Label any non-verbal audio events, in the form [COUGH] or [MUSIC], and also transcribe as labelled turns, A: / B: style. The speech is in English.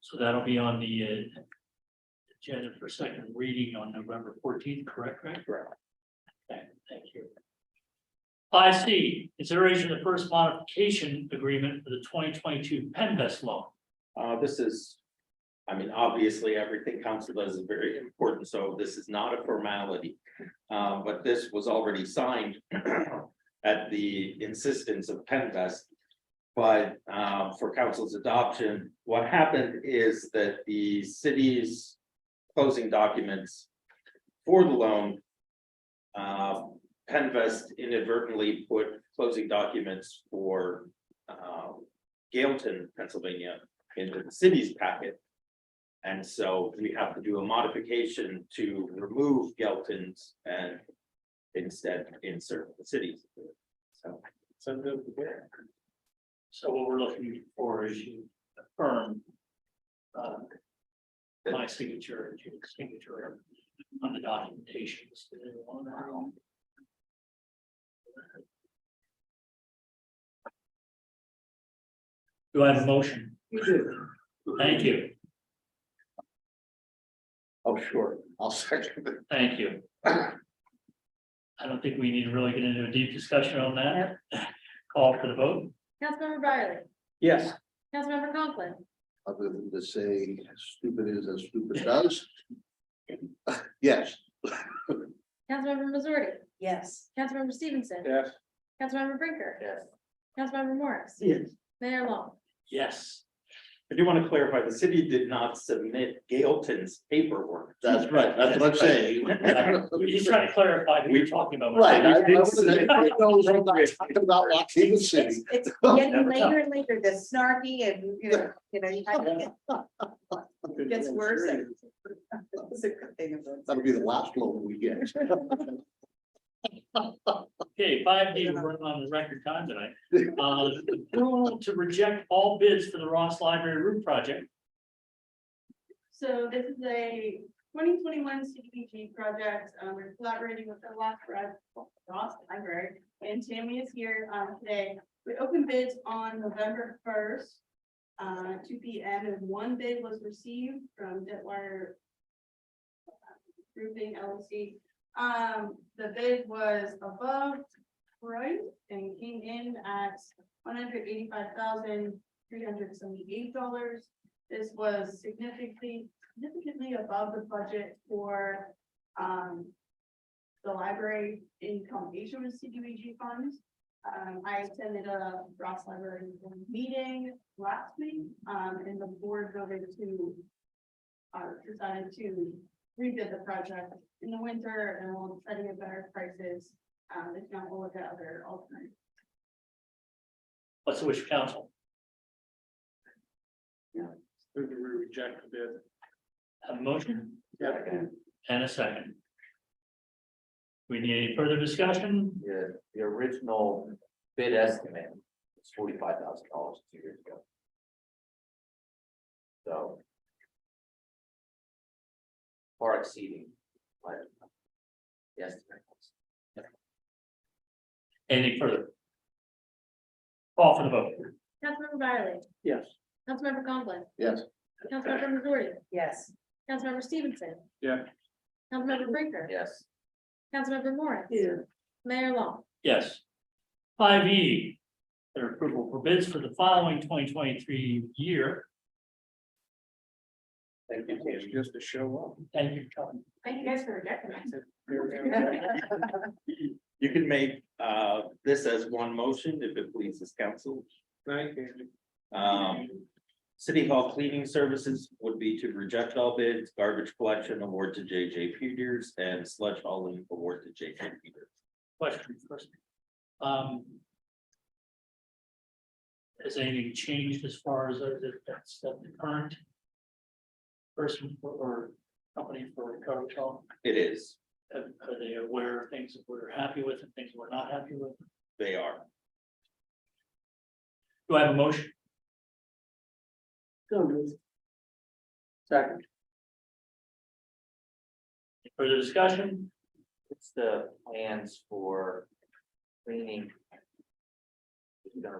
A: So that'll be on the uh, agenda for second reading on November fourteenth, correct, Rick?
B: Correct.
A: Okay, thank you. I C, consideration of the first modification agreement for the twenty twenty-two Penvest loan.
B: Uh, this is, I mean, obviously, everything council does is very important, so this is not a formality. Uh, but this was already signed [CLEARS THROAT] at the insistence of Penvest. But, uh, for council's adoption, what happened is that the city's closing documents for the loan. Uh, Penvest inadvertently put closing documents for, uh, Gailton, Pennsylvania into the city's packet. And so we have to do a modification to remove Gelton's and instead insert the city's. So. So the.
A: So what we're looking for is you affirm. uh, My signature, and your signature on the documentation. Is there anyone around? Do I have a motion?
C: We do.
A: Thank you,
C: Oh, sure, I'll [LAUGHS] second it.
A: thank you. I don't think we need to really get into a deep discussion on that. Call for the
C: [LAUGHS]
A: vote.
D: Councilmember Byerly,
C: Yes.
D: Councilmember Conklin,
C: Other than to say stupid is as stupid does. Yes.
D: Councilmember Missouri,
E: yes,
D: Councilmember Stevenson,
C: Yes.
D: Councilmember Brinker.
C: Yes.
D: Councilmember Morris,
C: Yes.
D: Mayor Long.
A: Yes.
B: I do want to clarify, the city did not submit Gailton's paperwork.
C: That's right, that's what
F: [LAUGHS]
C: I'm saying.
A: We're just trying to clarify who you're talking about.
C: Right. I- I wouldn't- [LAUGHS] it goes on that- talking About
F: [LAUGHS]
C: Waukegan
E: it's,
C: City. [LAUGHS]
E: it's getting later and later, the snarky and, you know, you
C: [LAUGHS]
E: know, you have to get- Gets worse. it's a good thing about-
C: That'll be the last loan
F: [LAUGHS]
C: we get.
A: Okay, five D, we're running on the record time tonight. Uh, approval to reject all bids for the Ross Library roof project.
G: So this is a twenty twenty-one CDBG project, um, we're collaborating with the Ross, Ross Library, and Tammy is here, um, today. We opened bids on November first, uh, two P M, and one bid was received from Detwire Roofing LLC. Um, the bid was above price and came in at one hundred eighty-five thousand, three hundred seventy-eight dollars. This was significantly, significantly above the budget for, um, the library in combination with CDBG funds. Um, I attended a Ross Library meeting last week, um, and the board voted to, uh, decided to rebid the project in the winter and we'll study at better prices. Um, if not, we'll look at other alternatives.
A: What's the wish of council?
F: Move to reject the bid.
A: Have a motion and a second. We need any further discussion?
H: the, the original bid estimate was forty-five thousand dollars two years ago. So. Far exceeding. Yes.
A: Anything further? Call for the vote.
D: Councilmember Byerly,
F: Yes.
D: Councilmember Conklin,
C: Yes.
D: Councilmember Missouri,
E: yes.
D: Councilmember Stevenson.
F: Yeah.
D: Councilmember Brinker,
H: Yes.
D: Councilmember Morris, Mayor Long.
A: Yes. Five E, their approval for bids for the following twenty twenty-three year.
B: Thank you, Tammy.
F: Just to show
A: Thank you, Tom.
G: Thank you guys for rejecting that.
F: up.
B: You can make uh this as one motion if it pleases council.
F: Thank you.
B: Um. City Hall cleaning services would be to reject all bids, garbage collection award to J J Peters and sludge hauling award to J J Peters.
A: question first. Um. Has anything changed as far as uh, that- that's that the current? Person for- or company for coverage call,
B: It is,
A: are are they aware of things that we're happy with and things we're not happy with?
B: they are.
A: Do I have a motion?
F: Second.
A: Further discussion?
H: What's the plans for cleaning? Is it gonna